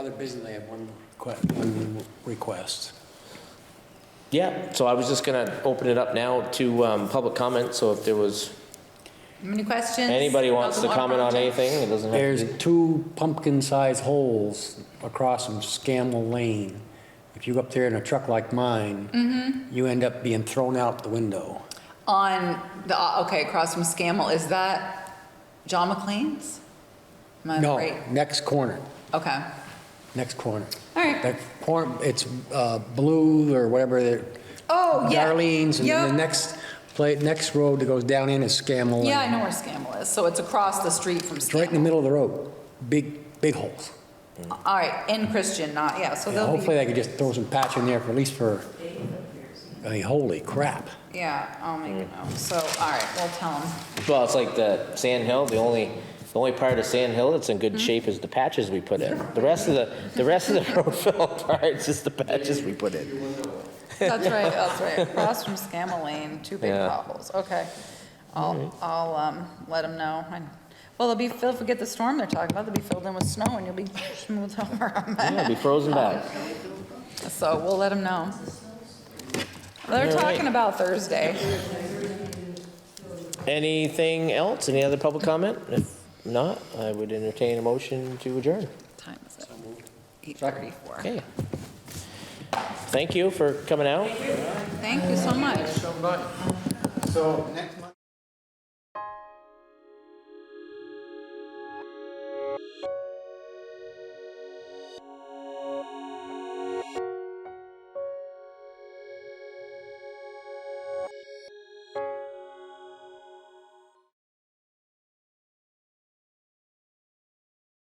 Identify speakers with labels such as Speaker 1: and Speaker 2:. Speaker 1: Other business, I have one more.
Speaker 2: que- one request.
Speaker 3: Yeah, so I was just going to open it up now to um, public comment, so if there was,
Speaker 4: Any questions?
Speaker 3: anybody
Speaker 4: about
Speaker 3: wants
Speaker 4: the
Speaker 3: to
Speaker 4: water
Speaker 3: comment on
Speaker 4: project?
Speaker 3: anything, it doesn't have to be-
Speaker 2: There's two pumpkin-sized holes across from Scammel Lane. If you go up there in a truck like mine,
Speaker 4: Mm-hmm.
Speaker 2: you end up being thrown out the window.
Speaker 4: On the, uh, okay, across from Scammell, is that John McLean's? Am I
Speaker 2: No,
Speaker 4: right?
Speaker 2: next corner,
Speaker 4: Okay,
Speaker 2: next corner.
Speaker 4: all right.
Speaker 2: That corner, it's uh, blue or whatever, the-
Speaker 4: Oh, yeah.
Speaker 2: Darlene's, and then the
Speaker 4: Yep.
Speaker 2: next, play, next road that goes down in is Scammel Lane.
Speaker 4: Yeah, I know where Scammell is, so it's across the street from
Speaker 2: It's right in the
Speaker 4: Scammell.
Speaker 2: middle of the road, big, big holes.
Speaker 4: All right, in Christian, not, yeah, so
Speaker 2: Yeah,
Speaker 4: they'll
Speaker 2: hopefully they
Speaker 4: be,
Speaker 2: could just throw some patch in there for, at least for, I mean, holy crap.
Speaker 4: yeah, I'll make a
Speaker 3: Mm.
Speaker 4: note, so, all right, we'll tell them.
Speaker 3: well, it's like the Sand Hill, the only, the only part of Sand Hill that's in
Speaker 4: Mm-hmm.
Speaker 3: good shape is the patches we put in. The rest of the, the rest of the roadville part's just the patches we put in.
Speaker 4: That's right, that's right, across from Scammell Lane, two big
Speaker 3: Yeah.
Speaker 4: potholes, okay. I'll, I'll, um, let them know, and, well, they'll be filled, forget the storm they're talking about, they'll be filled in with snow and you'll be smoothed over on that.
Speaker 3: Yeah, it'll be frozen back.
Speaker 4: So we'll let them know. They're
Speaker 3: All right.
Speaker 4: talking about Thursday.
Speaker 3: Anything else? Any other public comment? If not, I would entertain a motion to adjourn.
Speaker 4: Time is it? Eight thirty-four.
Speaker 3: Okay. Thank you for coming out.
Speaker 4: Thank you so much.
Speaker 5: So next